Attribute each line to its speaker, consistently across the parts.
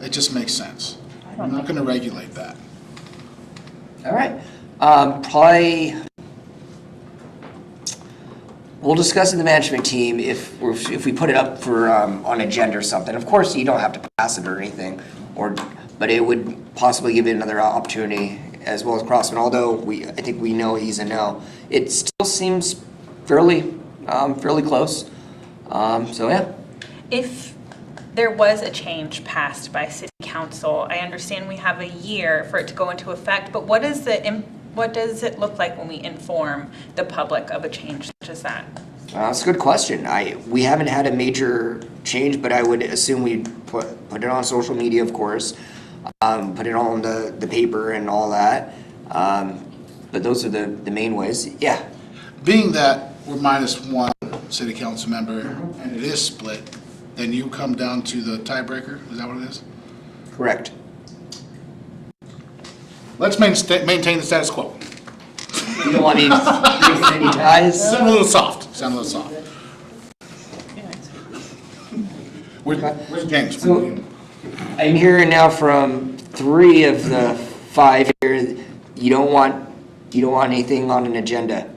Speaker 1: It just makes sense. We're not gonna regulate that.
Speaker 2: All right, um, probably, we'll discuss in the management team if, we're- if we put it up for, um, on agenda or something. Of course, you don't have to pass it or anything, or, but it would possibly give it another opportunity as well as Crossman, although we, I think we know he's a no. It still seems fairly, um, fairly close, um, so yeah.
Speaker 3: If there was a change passed by city council, I understand we have a year for it to go into effect, but what is the, im- what does it look like when we inform the public of a change such as that?
Speaker 2: Uh, That's a good question. I, we haven't had a major change, but I would assume we'd put, put it on social media, of course. Um, put it on the, the paper and all that. Um, but those are the, the main ways. Yeah.
Speaker 1: Being that we're minus one city council member and it is split, then you come down to the tiebreaker, is that what it is?
Speaker 2: Correct.
Speaker 1: Let's maintain, maintain the status quo.
Speaker 2: You don't want me to break any ties?
Speaker 1: Sound a little soft, sound a little soft. Where's, where's James?
Speaker 2: So- I'm hearing now from three of the five here, you don't want, you don't want anything on an agenda.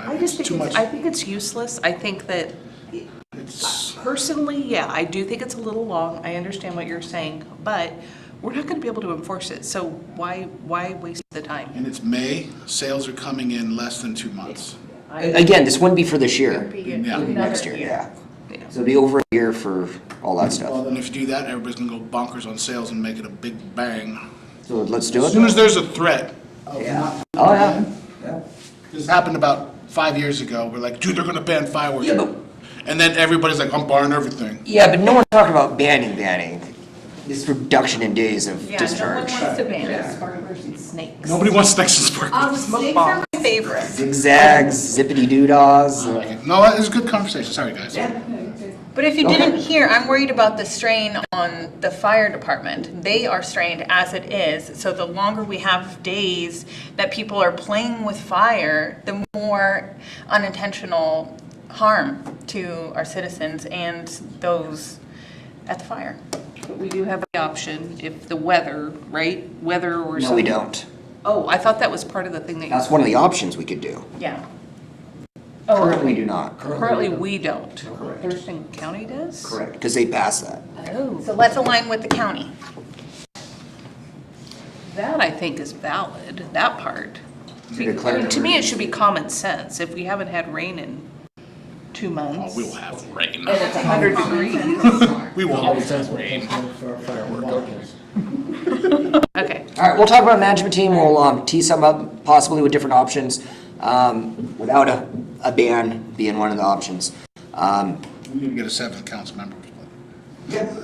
Speaker 4: I just think,
Speaker 1: Too
Speaker 4: it's-
Speaker 1: much.
Speaker 4: I think it's useless. I think that
Speaker 1: It's-
Speaker 4: personally, yeah, I do think it's a little long. I understand what you're saying, but we're not going to be able to enforce it, so why, why waste the time?
Speaker 1: And it's May, sales are coming in less than two months.
Speaker 2: A- Again, this wouldn't be for this year,
Speaker 1: Yeah.
Speaker 2: next year, yeah. So it'll be over a year for all that stuff.
Speaker 1: And if you do that, everybody's gonna go bonkers on sales and make it a big bang.
Speaker 2: So let's do it.
Speaker 1: As soon as there's a threat of not,
Speaker 2: Oh, yeah.
Speaker 1: this happened about five years ago, we're like, dude, they're gonna ban fireworks.
Speaker 2: Yeah, but-
Speaker 1: And then everybody's like, I'm barring everything.
Speaker 2: Yeah, but no one's talking about banning banning. This reduction in days of
Speaker 3: Yeah, no one
Speaker 2: discharge.
Speaker 3: wants to ban it.
Speaker 4: Sparklers and snakes.
Speaker 1: Nobody wants Texas sparklers.
Speaker 3: Um, snakes are my favorite,
Speaker 2: Zigzags, zippity doo-dahs.
Speaker 1: No, it was a good conversation, sorry, guys.
Speaker 3: but if you
Speaker 2: Okay.
Speaker 3: didn't hear, I'm worried about the strain on the fire department. They are strained as it is, so the longer we have days that people are playing with fire, the more unintentional harm to our citizens and those at the fire.
Speaker 4: But we do have the option if the weather, right? Weather or
Speaker 2: No, we
Speaker 4: something.
Speaker 2: don't.
Speaker 4: Oh, I thought that was part of the thing that you,
Speaker 2: That's one of the options we could do.
Speaker 3: Yeah.
Speaker 2: Currently do not.
Speaker 4: currently, we don't.
Speaker 2: Correct.
Speaker 4: Thurston County does?
Speaker 2: Correct, because they passed that.
Speaker 3: So
Speaker 4: Oh,
Speaker 3: let's align with the county.
Speaker 4: that I think is valid, that part.
Speaker 2: To declare an
Speaker 4: To me, it should be common sense. If we haven't had rain in two months.
Speaker 1: We'll Oh, have rain.
Speaker 4: And it's 100 degrees.
Speaker 1: We will always have
Speaker 4: Okay,
Speaker 2: All right, we'll talk about management team. We'll um, tee some up possibly with different options, um, without a, a ban being one of the options. Um,
Speaker 1: We didn't get a seventh council member.
Speaker 3: What
Speaker 2: Well,
Speaker 3: does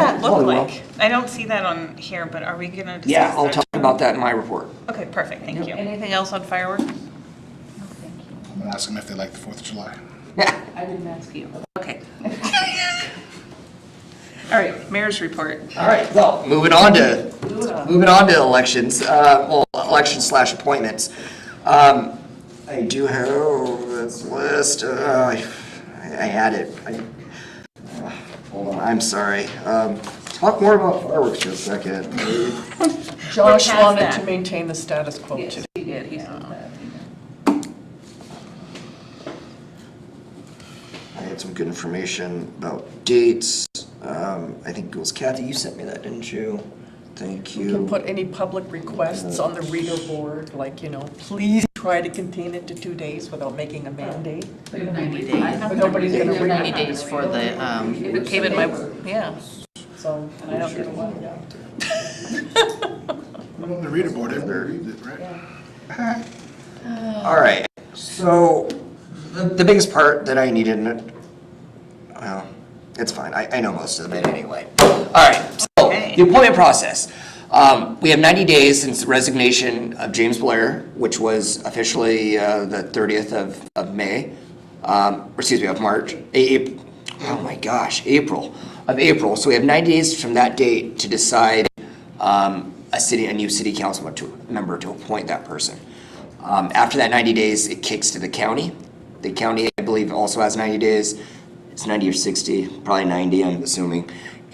Speaker 3: that look
Speaker 2: probably will.
Speaker 3: like? I don't see that on here, but are we gonna discuss?
Speaker 2: Yeah, I'll
Speaker 3: that?
Speaker 2: talk about that in my report.
Speaker 3: Okay, perfect, thank you.
Speaker 4: anything else on fireworks?
Speaker 1: I'm gonna ask them if they like the Fourth of July.
Speaker 4: I didn't ask you. Okay. All right, mayor's report.
Speaker 2: All right, well, moving on to, moving on to elections, uh, well, elections slash appointments. Um, I do have this list, uh, I I had it. I- uh, Hold on, I'm sorry. Um, Talk more about fireworks for a second.
Speaker 5: Josh
Speaker 3: We're past
Speaker 5: wanted
Speaker 3: that.
Speaker 5: to maintain the status quo too.
Speaker 4: he did, he said that.
Speaker 2: I had some good information about dates. Um, I think it was Kathy, you sent me that, didn't you? Thank you.
Speaker 5: You can put any public requests on the reader board, like, you know, please try to contain it to two days without making a mandate.
Speaker 6: We have 90 days.
Speaker 5: But nobody's gonna
Speaker 6: We have
Speaker 5: read
Speaker 6: 90
Speaker 5: it,
Speaker 6: days for the, um,
Speaker 4: It came in my, yeah.
Speaker 5: so I don't get a lot of that.
Speaker 1: We're on the reader board, everybody reads it, right?
Speaker 2: All right, so the, the biggest part that I needed, and, well, it's fine, I, I know most of it anyway. All right, so the appointment process. Um, we have ninety days since the resignation of James Blair, which was officially, uh, the thirtieth of, of May. Um, or excuse me, of March, A- Ap- oh my gosh, April, of April. So we have ninety days from that date to decide, um, a city, a new city council member to, member to appoint that person. Um, after that ninety days, it kicks to the county. The county, I believe, also has ninety days. It's ninety or sixty, probably ninety, I'm assuming.